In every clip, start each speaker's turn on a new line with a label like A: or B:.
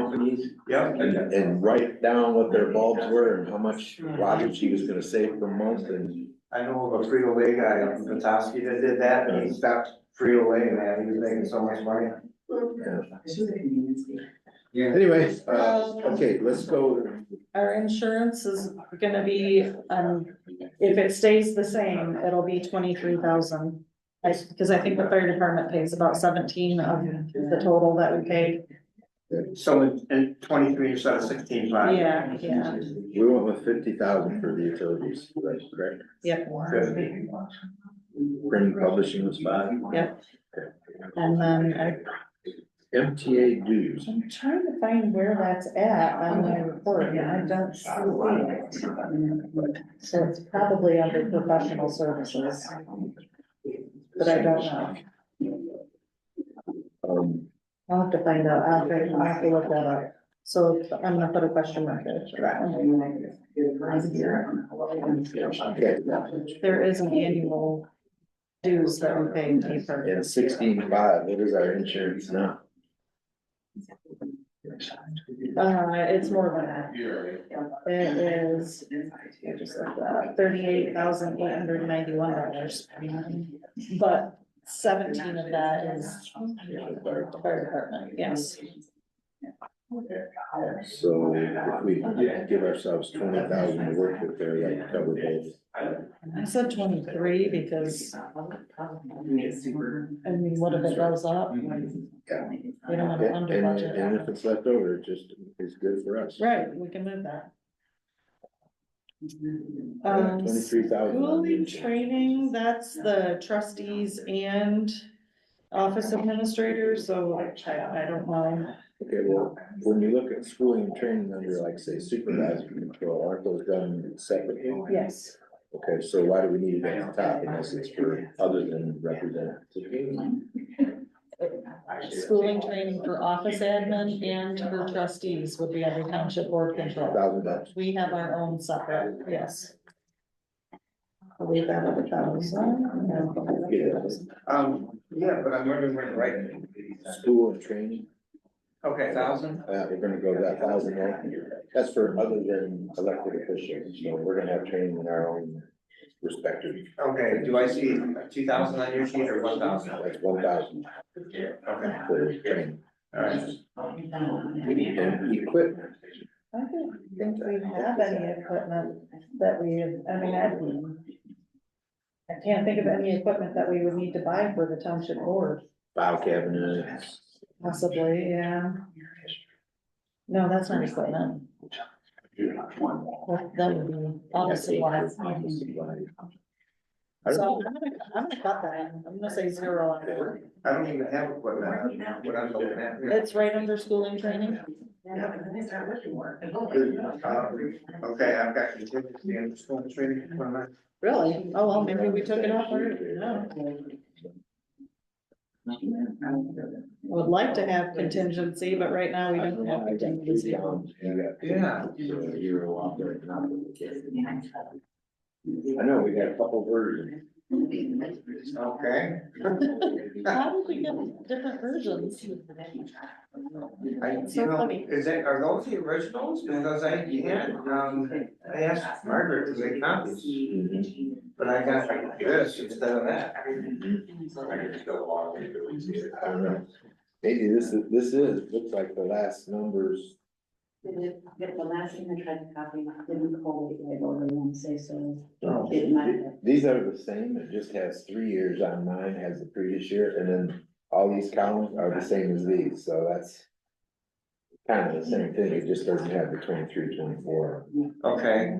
A: companies
B: Yeah.
A: and, and write down what their bulbs were and how much wattage he was gonna save per month and.
B: I know of a Frito Lay guy up in Petoskey that did that, and he stopped Frito Lay, man, he was making so much money. Yeah.
A: Anyway, uh, okay, let's go,
C: Our insurance is gonna be, um, if it stays the same, it'll be twenty-three thousand. I, cause I think the fire department pays about seventeen of the total that we paid.
B: So in, in twenty-three instead of sixteen five.
C: Yeah, yeah.
A: we went with fifty thousand for the utilities, right, correct?
C: Yep,
B: Good.
A: Print and publishing was five.
C: Yep. and
A: Um,
C: then I,
A: MTA dues,
C: I'm trying to find where that's at on my report, and I don't see it. So it's probably under professional services, but I don't know.
A: um,
C: I'll have to find out, I'll have to, I'll have to look that up. So I'm gonna put a question mark there for that one.
A: okay,
C: There is an annual dues that we pay in April.
A: and sixteen five, what is our insurance now?
C: Uh, it's more than that. It is, I just looked that up, thirty-eight thousand eight hundred ninety-one dollars. But seventeen of that is fire department, yes.
A: So if we give ourselves twenty thousand to work with there, that would cover both.
C: I said twenty-three because, I mean, what if it goes up?
A: Yeah.
C: We don't have
A: Yeah,
C: it under
A: And,
C: budget.
A: and if it's left over, it just is good for us.
C: Right, we can move that. Um,
A: Uh, Twenty-three thousand.
C: School and training, that's the trustees and office administrators, so I, I don't know.
A: Okay, well, when you look at schooling and training under like, say, supervisor control, aren't those done separately?
C: Yes.
A: Okay, so why do we need it at the top unless it's for other than representative?
C: Schooling training for office admin and for trustees would be under township board control.
A: Thousand bucks.
C: We have our own separate, yes. I'll leave that at a thousand. no.
B: Um, yeah, but I'm wondering where the right.
A: School and training,
B: Okay, thousand?
A: uh, we're gonna go to that thousand, there. that's for other than elected officials, so we're gonna have training in our own respective.
B: Okay, do I see two thousand on your sheet or one thousand?
A: That's one thousand
B: Okay,
A: for training
B: all right.
A: and equipment.
C: I don't think we have any equipment that we, I mean, I. I can't think of any equipment that we would need to buy for the township board,
A: file cabinets.
C: possibly, yeah. No, that's not equipment, that, that would be obviously wise.
A: I
C: So
A: don't,
C: I'm gonna, I'm gonna cut that, in. I'm gonna say zero on that.
B: I don't even have equipment, what I'm looking at here.
C: It's right under school and training,
B: Uh, Okay, I've got contingency and school training. for my-
C: really? Oh, well, maybe we took it off already, no. Would like to have contingency, but right now we don't have contingency.
B: Yeah.
A: I know, we got a couple versions.
B: Okay,
C: How did we get different versions?
B: I,
C: So
B: you know,
C: funny.
B: is that, are those the originals? Because I, yeah, um, I asked Margaret to make copies, but I got like this instead of that.
D: Mm-hmm.
A: I don't know. Maybe this is, this is, looks like the last numbers.
D: The last thing I tried to copy, didn't call it, I ordered one, say so,
A: Oh.
D: it might have.
A: These are the same, it just has three years on mine, has the previous year, and then all these columns are the same as these, so that's. Kind of the same thing, it just doesn't have the 23, 24.
B: Okay.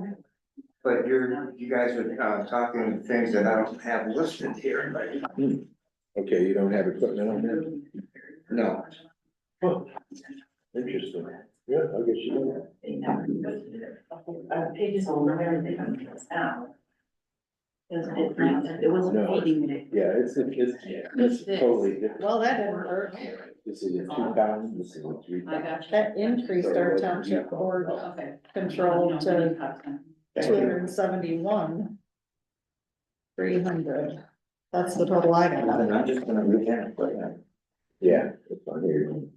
B: But you're, you guys are, uh, talking things that I don't have listed here, but.
A: Okay, you don't have equipment on there?
B: No.
A: Huh, Interesting, yeah, I guess you don't.
D: Uh, pages over everything on this out. It was, it wasn't reading it.
A: Yeah, it's, it's, it's totally different.
C: Well, that didn't work.
A: This is a two thousand, this is a three
D: I
A: thousand.
D: got you.
C: That increased our township board
D: Okay.
C: control to two hundred and seventy-one. Three hundred. That's the total I got.
B: I'm just gonna read that, but.
A: Yeah, uh, it's on here.